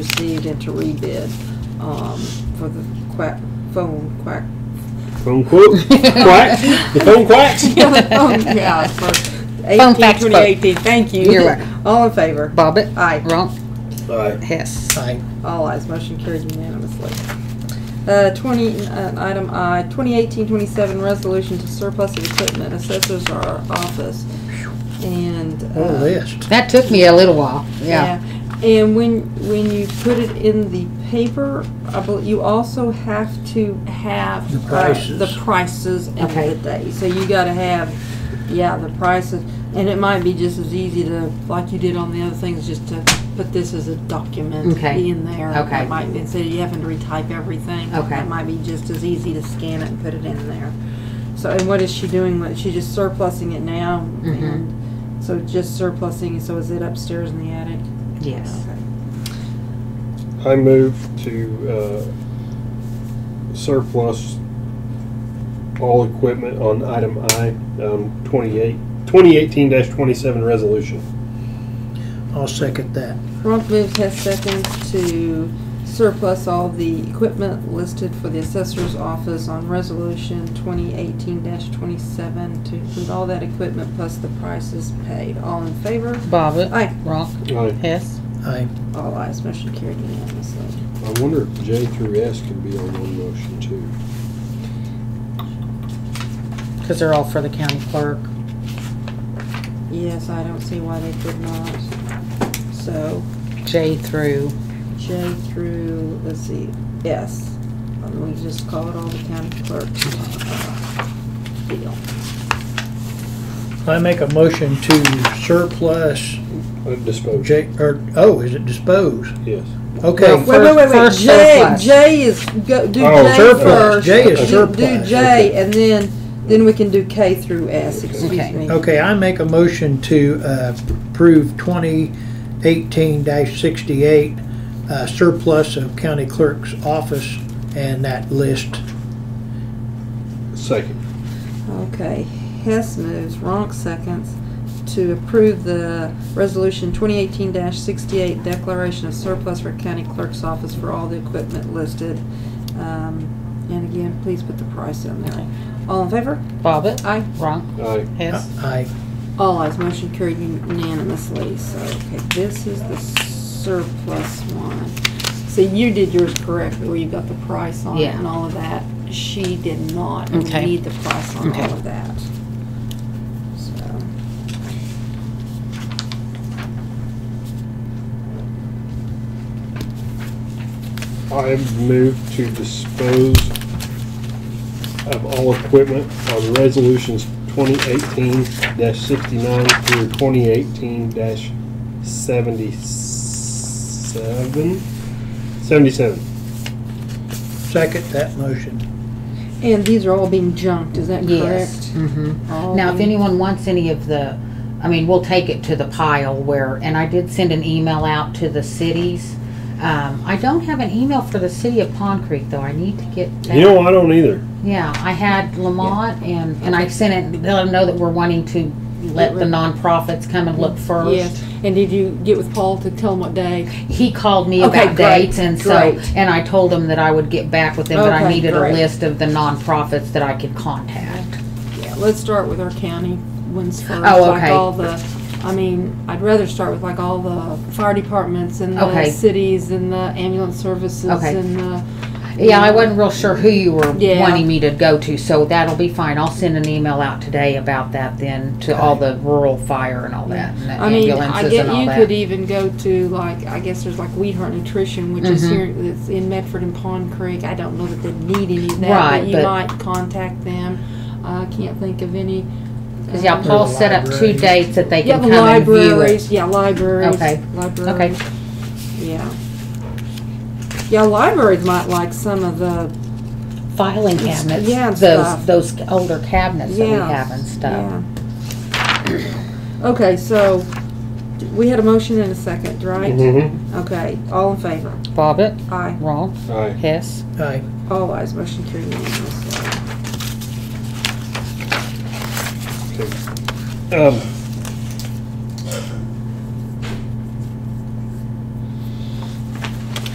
received and to rebid, um, for the quack, phone quack. Phone quote, quack, the phone quacks. Um, Yeah, for Phone eighteen, fax twenty quote. eighteen, thank you. You're welcome. All in favor? Bobbit. Aye. Wrong. Alright, Hess. Aye. All eyes motion carried unanimously. Uh, 20, uh, item I, 2018-27 resolution to surplus of equipment, assessors our office, and. What a uh, list. That took me a little while. Yeah. And when, when you put it in the paper, I bel- you also have to have. The uh, prices. The prices and Okay. the day, so you gotta have, yeah, the prices, and it might be just as easy to, like you did on the other things, just to put this as a document. Okay. In there. Okay. It might, instead of you having to retype everything. Okay. It might be just as easy to scan it and put it in there. So, and what is she doing with, it? she's just surplusing it now? Mhm. and So just surplusing, so is it upstairs in the attic? Yes. I move to, uh, surplus all equipment on item I, um, twenty-eight, twenty eighteen dash twenty-seven resolution. I'll second that. Ronk moves Hess seconds to surplus all the equipment listed for the assessor's office on resolution twenty eighteen twenty-seven to include all that equipment plus the prices paid. All in favor? Bobbit. Aye. Wrong. Aye. Hess. Aye. All ayes, motion carried unanimously. I wonder if J through S can be on one motion too. Because they're all for the county clerk. Yes, I don't see why they could not. So J through. J through, let's see, S. And We just call it all the county clerk's uh, deal. I make a motion to surplus Uh, Dispose. J, or, oh, is it dispose? Yes. Okay, Well, Wait, wait, wait, wait, First J, surplus. J is, go, do Oh, J surplus. first. J is Do- Do surplus. J, and then, then we can do K through S, excuse Okay. me. okay, I make a motion to uh, approve twenty eighteen sixty-eight uh, surplus of county clerk's office and that list. Second. Okay, Hess moves, Ronk seconds, to approve the resolution twenty eighteen sixty-eight declaration of surplus for county clerk's office for all the equipment listed. Um, and again, please put the price in there. All in favor? Bobbit. Aye. Wrong. Aye. Hess. Aye. All eyes, Oh, motion carried unanimously, so, okay, this is the surplus one. So you did yours correct, where you got the price on it Yeah. and all of that. She did not, and we Okay. need the price on Okay. all of that. So. I move to dispose of all equipment on resolutions twenty eighteen sixty-nine through twenty eighteen seventy-seven? Seventy-seven. Second that motion. And these are all being junked, is that Yes. correct? Um, Mm-hmm. All Now, if being- anyone wants any of the, I mean, we'll take it to the pile where, and I did send an email out to the cities. Um, I don't have an email for the city of Pond Creek though. I need to get that. You know, I don't either. Yeah, I had Lamont and, and I sent it, let them know that we're wanting to let the nonprofits come and look Yes, first. and did you get with Paul to tell him what day? He called me Okay, about great, dates and so, great. and I told him that I would get back with him, but I Okay, needed a great. list of the nonprofits that I could contact. Yeah, let's start with our county ones first. Oh, Like okay. all the, I mean, I'd rather start with like all the fire departments and the Okay. cities and the ambulance services Okay. and the. Yeah, I wasn't real sure who you were Yeah. wanting me to go to, so that'll be fine. I'll send an email out today about that then to all the rural fire and all that, and the I mean, I ambulances get and all you could e- that. even go to like, I guess there's like Weedheart Nutrition, which is Mhm. here, it's in Medford and Pond Creek. I don't know that they need any of that, Right, but you but- might contact them. I can't think of any. Cause yeah, um, Paul set up two libraries. dates that they Yeah, can the come and view it. libraries, yeah, libraries. Okay. Libraries, yeah. Yeah, libraries might like some of the, Filing cabinets, yeah, and stuff. those, those older cabinets that we Yeah, have and stuff. yeah. Okay, so, we had a motion and a second, right? Mm-hmm. Okay, all in favor? Bobbit, Aye. Ronk, Aye. Hess. Aye. All ayes, motion carried unanimously. Um,